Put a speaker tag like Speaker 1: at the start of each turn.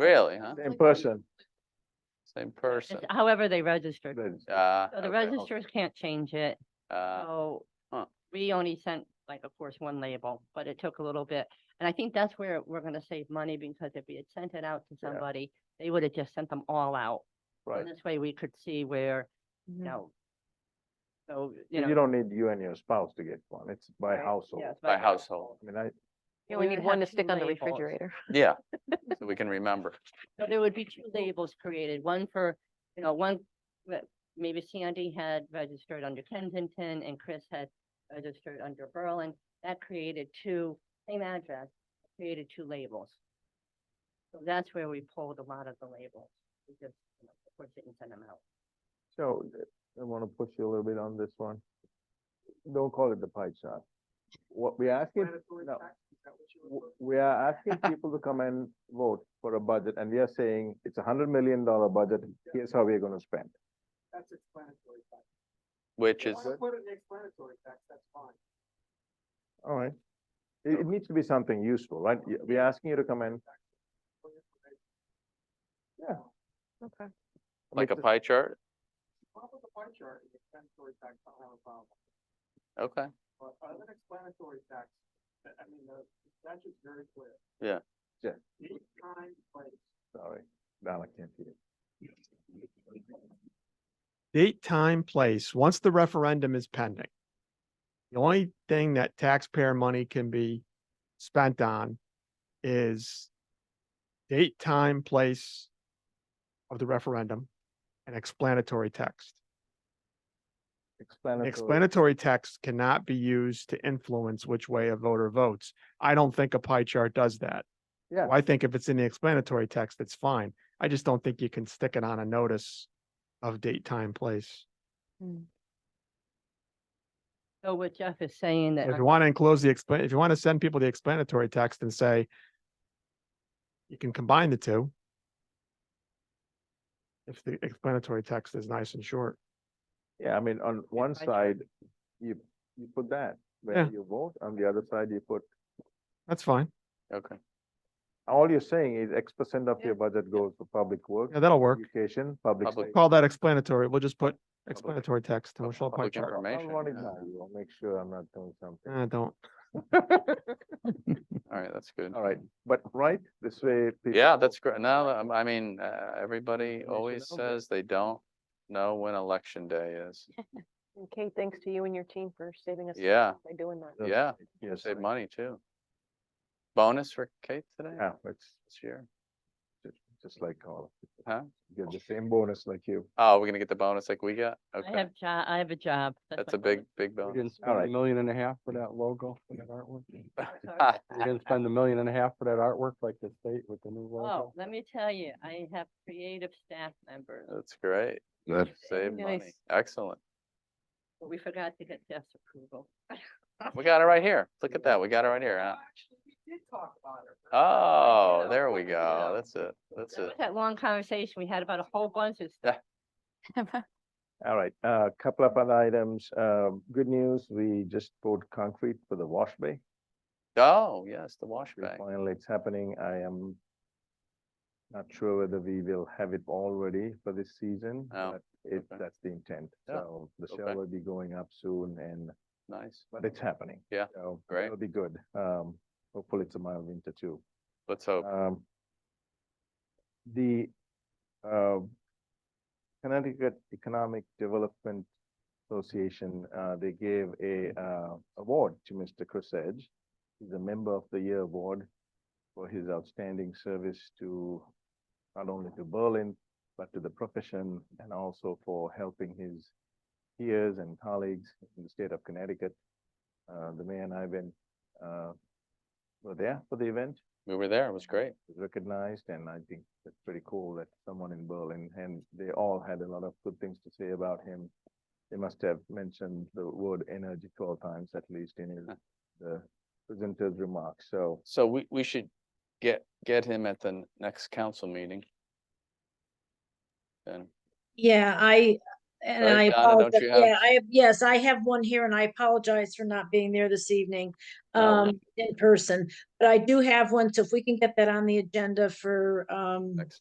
Speaker 1: Really, huh?
Speaker 2: Same person.
Speaker 1: Same person.
Speaker 3: It's However they registered.
Speaker 2: Then-
Speaker 1: Uh,
Speaker 3: So
Speaker 1: okay.
Speaker 3: the registrars can't change it.
Speaker 1: Uh,
Speaker 3: So
Speaker 1: huh.
Speaker 3: we only sent like, of course, one label, but it took a little bit. And I think that's where we're gonna save money because if we had sent it out to
Speaker 2: Yeah.
Speaker 3: somebody, they would have just sent them all out.
Speaker 2: Right.
Speaker 3: And this way we could see where, you know. So, you know.
Speaker 2: You don't need you and your spouse to get one. It's by
Speaker 3: right,
Speaker 2: household.
Speaker 3: yes,
Speaker 1: by household,
Speaker 2: I mean, I,
Speaker 3: You
Speaker 4: You
Speaker 3: only
Speaker 4: only need
Speaker 3: have
Speaker 4: one to
Speaker 3: two
Speaker 4: stick on the
Speaker 3: labels.
Speaker 4: refrigerator.
Speaker 1: yeah, so we can remember.
Speaker 3: So there would be two labels created, one for, you know, one, that maybe Sandy had registered under Kensington and Chris had registered under Berlin. That created two, same address, created two labels. So that's where we pulled a lot of the labels. We just, you know, of course, didn't send them out.
Speaker 2: so I want to push you a little bit on this one. Don't call it the pie chart. What we're asking, no. W- We are asking people to come and vote for a budget and we are saying it's a hundred million dollar budget. Here's how we're going to spend.
Speaker 5: That's explanatory tax.
Speaker 1: Which
Speaker 5: If
Speaker 1: is,
Speaker 5: you wanna Put it in the explanatory tax, that's fine.
Speaker 2: All right. It, it needs to be something useful, right? Y- We're asking you to come in.
Speaker 5: For your information.
Speaker 2: Yeah.
Speaker 4: Okay.
Speaker 1: like a pie chart?
Speaker 5: Well, with the pie chart, the explanatory tax, I don't have a problem.
Speaker 1: Okay,
Speaker 5: But other than explanatory tax, I I mean, the statute's very clear.
Speaker 1: Yeah.
Speaker 2: Yeah.
Speaker 5: Any time, place.
Speaker 2: Sorry, Val, I can't hear.
Speaker 6: date, time, place, once the referendum is pending. The only thing that taxpayer money can be spent on is date, time, place of the referendum and explanatory text.
Speaker 2: Explanatory.
Speaker 6: Explanatory text cannot be used to influence which way a voter votes. I don't think a pie chart does that.
Speaker 2: Yeah.
Speaker 6: I think if it's in the explanatory text, it's fine. I just don't think you can stick it on a notice of date, time, place.
Speaker 3: So what Jeff is saying that.
Speaker 6: If you want to enclose the explain, if you want to send people the explanatory text and say you can combine the two. If the explanatory text is nice and short,
Speaker 2: Yeah, I mean, on one
Speaker 3: pie
Speaker 2: side,
Speaker 3: chart.
Speaker 2: you, you put that, where
Speaker 6: Yeah.
Speaker 2: you vote, on the other side, you put,
Speaker 6: that's fine.
Speaker 1: okay.
Speaker 2: all you're saying is X percent of
Speaker 4: Yeah.
Speaker 2: your budget goes for public work,
Speaker 6: Yeah, that'll work.
Speaker 2: education, public.
Speaker 1: Public-
Speaker 6: Call that explanatory. We'll just put explanatory text and we'll show a pie
Speaker 1: Public
Speaker 6: chart.
Speaker 2: I'll
Speaker 1: information.
Speaker 2: run it
Speaker 1: yeah.
Speaker 2: by you, I'll make sure I'm not doing something.
Speaker 6: Uh, don't.
Speaker 1: All right, that's good.
Speaker 2: All right, but right, this way. people
Speaker 1: Yeah,
Speaker 2: know.
Speaker 1: that's great. Now, um, I mean, uh, everybody
Speaker 2: should
Speaker 1: always
Speaker 2: know that.
Speaker 1: says they don't know when election day is.
Speaker 4: And Kate, thanks to you and your team for saving us. some
Speaker 1: Yeah.
Speaker 4: money By doing that.
Speaker 2: That's
Speaker 1: Yeah,
Speaker 2: right, Yes.
Speaker 1: save
Speaker 2: right.
Speaker 1: money too. Bonus for Kate today
Speaker 2: Yeah, it's
Speaker 1: this year.
Speaker 2: ju- just like Carla.
Speaker 1: Huh?
Speaker 2: Get the same bonus like you.
Speaker 1: Oh, we're gonna get the bonus like we got?
Speaker 3: I
Speaker 1: Okay,
Speaker 3: have job, I have a job.
Speaker 1: that's
Speaker 3: my
Speaker 1: a big,
Speaker 3: bonus.
Speaker 1: big
Speaker 5: You
Speaker 1: bonus.
Speaker 5: didn't spend a
Speaker 2: right.
Speaker 5: million and a half for that logo, for that artwork? You
Speaker 3: Sorry.
Speaker 5: didn't spend a million and a half for that artwork like the state with the new
Speaker 3: Oh,
Speaker 5: logo?
Speaker 3: let me tell you, I have creative staff members.
Speaker 1: That's great.
Speaker 2: Good.
Speaker 1: Save money.
Speaker 4: Nice.
Speaker 1: Excellent.
Speaker 3: But we forgot to get Jeff's approval.
Speaker 1: We got it right here. Look at that. We got it right here, huh?
Speaker 5: Actually, we did talk about it.
Speaker 1: Oh,
Speaker 5: know,
Speaker 1: there we
Speaker 5: look at
Speaker 1: go.
Speaker 5: that.
Speaker 1: That's it. That's
Speaker 3: That
Speaker 1: it.
Speaker 3: was that long conversation we had about a whole bunch of stuff.
Speaker 2: All right, a couple of other items. Um good news, we just poured concrete for the wash bay.
Speaker 1: Oh, yes, the wash
Speaker 2: We
Speaker 1: bay.
Speaker 2: Finally, it's happening. I am not sure whether we will have it all ready for this season,
Speaker 1: Oh,
Speaker 2: but it,
Speaker 1: okay.
Speaker 2: that's the intent.
Speaker 1: Yeah,
Speaker 2: So the
Speaker 1: okay.
Speaker 2: shell will be going up soon and,
Speaker 1: Nice.
Speaker 2: but it's happening.
Speaker 1: Yeah,
Speaker 2: So
Speaker 1: great.
Speaker 2: It'll be good. Um, hopefully it's a mild winter too.
Speaker 1: Let's hope.
Speaker 2: Um, the, uh, Connecticut Economic Development Association, uh, they gave a, uh, award to Mr. Chris Edge. He's a member of the year award for his outstanding service to, not only to Berlin, but to the profession and also for helping his peers and colleagues in the state of Connecticut. Uh, the mayor and I went, uh, were there for the event
Speaker 1: We were there. It was great.
Speaker 2: was recognized, and I think that's pretty cool that someone in Berlin, and they all had a lot of good things to say about him. They must have mentioned the word energy twelve times at least in his,
Speaker 1: Huh.
Speaker 2: the presenter's remarks, so.
Speaker 1: So we, we should get, get him at the n- next council meeting. Then
Speaker 7: Yeah, I, and
Speaker 1: Right,
Speaker 7: I
Speaker 1: Donna, don't
Speaker 7: apologize.
Speaker 1: you have-
Speaker 7: Yeah, I have, yes, I have one here and I apologize for not being there this evening
Speaker 1: No worries.
Speaker 7: um in person. But I do have one, so if we can get that on the agenda for um
Speaker 1: next